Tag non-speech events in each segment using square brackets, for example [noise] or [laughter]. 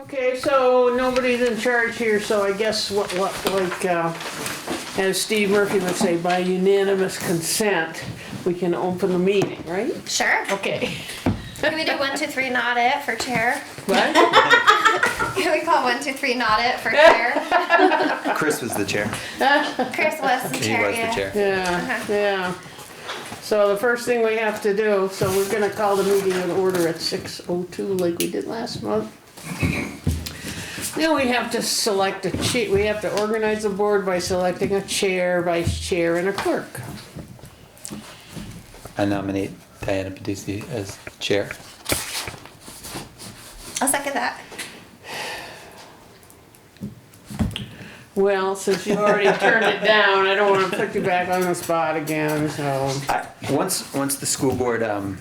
Okay, so nobody's in charge here, so I guess what, what, like, uh, as Steve Murphy would say, by unanimous consent, we can open the meeting, right? Sure. Okay. Can we do one, two, three, not it for chair? What? Can we call one, two, three, not it [laughs] for chair? Chris was the chair. Chris was the He chair. was the yeah. chair. Yeah, yeah. So the first thing we have to do, so we're gonna call the meeting in order at six oh two like we did last month. Now we have to select a chair, we have to organize the board by selecting a chair, vice chair, and a clerk. I nominate Diana Pedisi as chair. I'll second that. Well, since you already turned it down, I don't wanna put you back on the spot again, so. I, once, once the school board, um,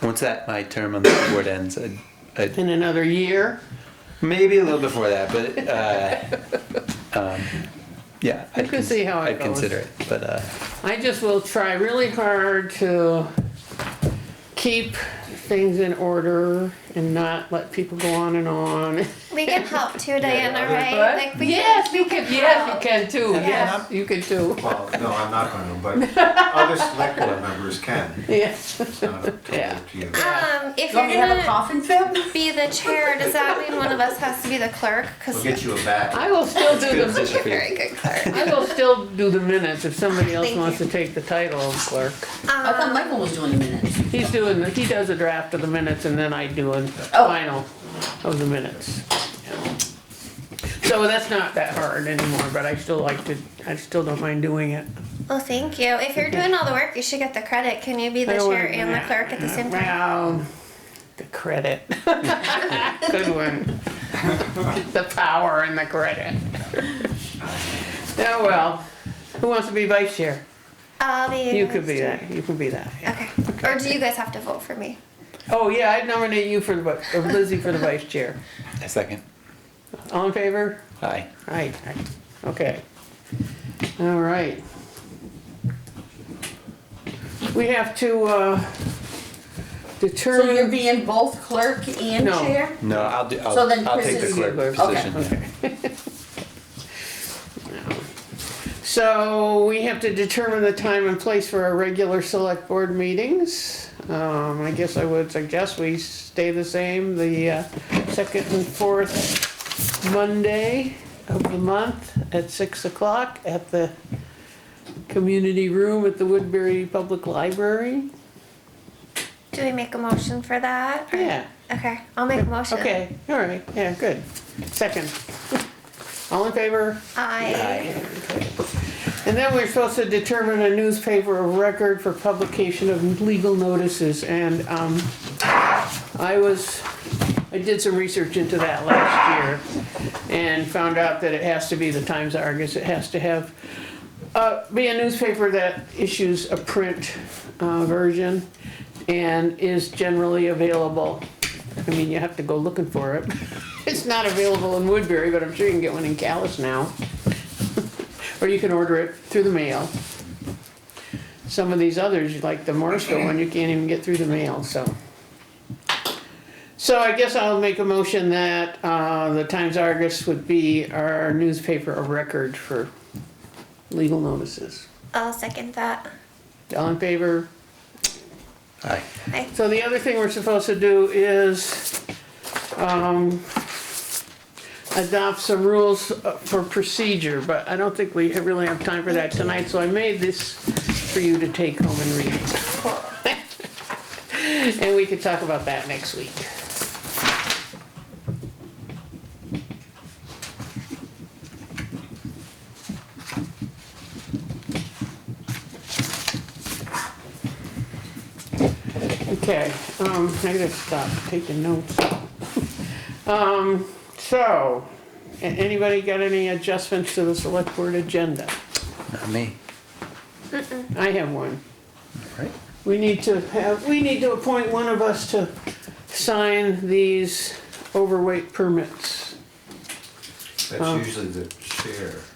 once that, my term on the school board ends, I, I, In another year, maybe a little before that, but, uh, um, [laughs] yeah. I'd can cons- see how it I'd goes. consider it, but, uh, I just will try really hard to keep things in order and not let people go on and on. We can help too, Diana, right? Like we Yes, can, you can, yes, you can too, Yeah. yes, you can too, Well, no, I'm not [laughs] going to, but other select board members can. yes. It's not up to Yeah. up to you. Um, if You you're want me to have a gonna coffin fit? be the chair, does that mean one of us has to be the clerk? We'll Because get you a bat. I will still do good the, position you're a for you. very good [laughs] clerk. Um, I will still do the minutes if somebody else Thank wants to you. take the title of clerk. I thought Um, Michael was doing the minutes. He's doing, the- he does a draft of the minutes and then I do a Oh. final of the minutes. So that's not that hard anymore, but I still like to, I still don't mind doing it. well, thank you. If you're doing all the work, you should get the credit. Can you be the I chair wouldn't- and the clerk at the same time? Well, the credit. [laughs] Good one. The power and the credit. Oh, well, who wants to be vice chair? I'll be. You could be that, you can be that. yeah. Okay. Or do you guys have to vote for me? Oh, yeah, I'd nominate you for the, vi- or Lizzie for the vice chair. A second. All in favor? Aye. Aye, aye, okay. All right. We have to, uh, So you're determine. being both clerk and No. chair? No, I'll do, I'll, So then I'll Chris take the is- clerk Okay, position. yeah. So we have to determine the time and place for our regular select board meetings. Um, I guess I would suggest we stay the same, the uh, second and fourth Monday of the month at six o'clock at the community room at the Woodbury Public Library. Do we make a motion for that? or- Yeah, Okay, I'll make a motion. okay, all right, yeah, good. Second. All in favor? I. And then we're supposed to determine a newspaper of record for publication of legal notices, and, um, I was, I did some research into that last year, and found out that it has to be the Times Argus, it has to have, uh, be a newspaper that issues a print, uh, version, and is generally available. I mean, you have to go looking for it. [laughs] It's not available in Woodbury, but I'm sure you can get one in Callis now or you can order it through the mail. Some of these others, like the Morrisville one, you can't even get through the mail, so. So I guess I'll make a motion that, uh, the Times Argus would be our newspaper of record for legal notices. I'll second that. All in favor? Aye. I, So the other thing we're supposed to do is, um, adopt some rules uh, for procedure, but I don't think we really have time for that tonight, so I made this for you to take home and read. [laughs] And we could talk about that next week. Okay, um, I gotta stop taking notes. [laughs] Um, so, a- anybody got any adjustments to the select board agenda? Not me, I have one. right? We need to have, we need to appoint one of us to sign these overweight permits. Oh. That's usually the chair.